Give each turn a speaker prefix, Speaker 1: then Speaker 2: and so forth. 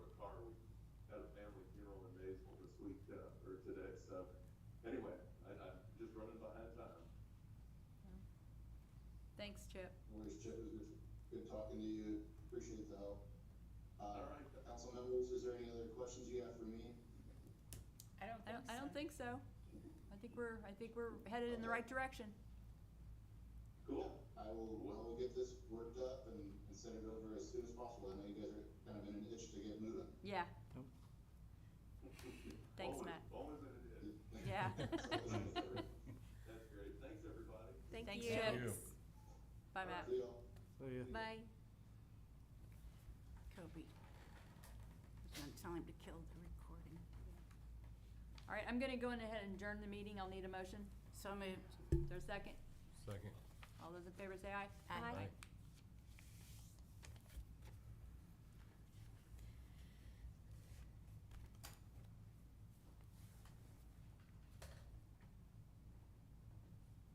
Speaker 1: Anyway, I, I'm just running behind time.
Speaker 2: Thanks, Chip.
Speaker 3: Morning, Chip, it was good talking to you, appreciate the help. Uh,
Speaker 1: All right.
Speaker 3: Council members, is there any other questions you have for me?
Speaker 4: I don't
Speaker 2: I
Speaker 4: think
Speaker 2: don't,
Speaker 4: so.
Speaker 2: I don't think so. I think we're, I think we're headed in the right direction.
Speaker 1: Cool.
Speaker 3: I will, I will get this worked up and, and send it over as soon as possible, I know you guys are kind of in an itch to get moving.
Speaker 2: Yeah, Thanks,
Speaker 1: Always-
Speaker 2: Matt.
Speaker 1: Always in it is.
Speaker 2: Yeah.
Speaker 3: So,
Speaker 1: That's great. Thanks, everybody.
Speaker 2: Thanks,
Speaker 4: Thank
Speaker 2: Chip.
Speaker 4: you.
Speaker 2: bye, Matt.
Speaker 3: See y'all.
Speaker 2: Bye.
Speaker 4: Kobe. Don't tell him to kill the recording.
Speaker 2: All right, I'm gonna go in ahead and adjourn the meeting. I'll need a motion.
Speaker 4: So moved.
Speaker 2: Is there a second?
Speaker 5: Second.
Speaker 2: All those in favor say aye.
Speaker 4: Aye. Aye.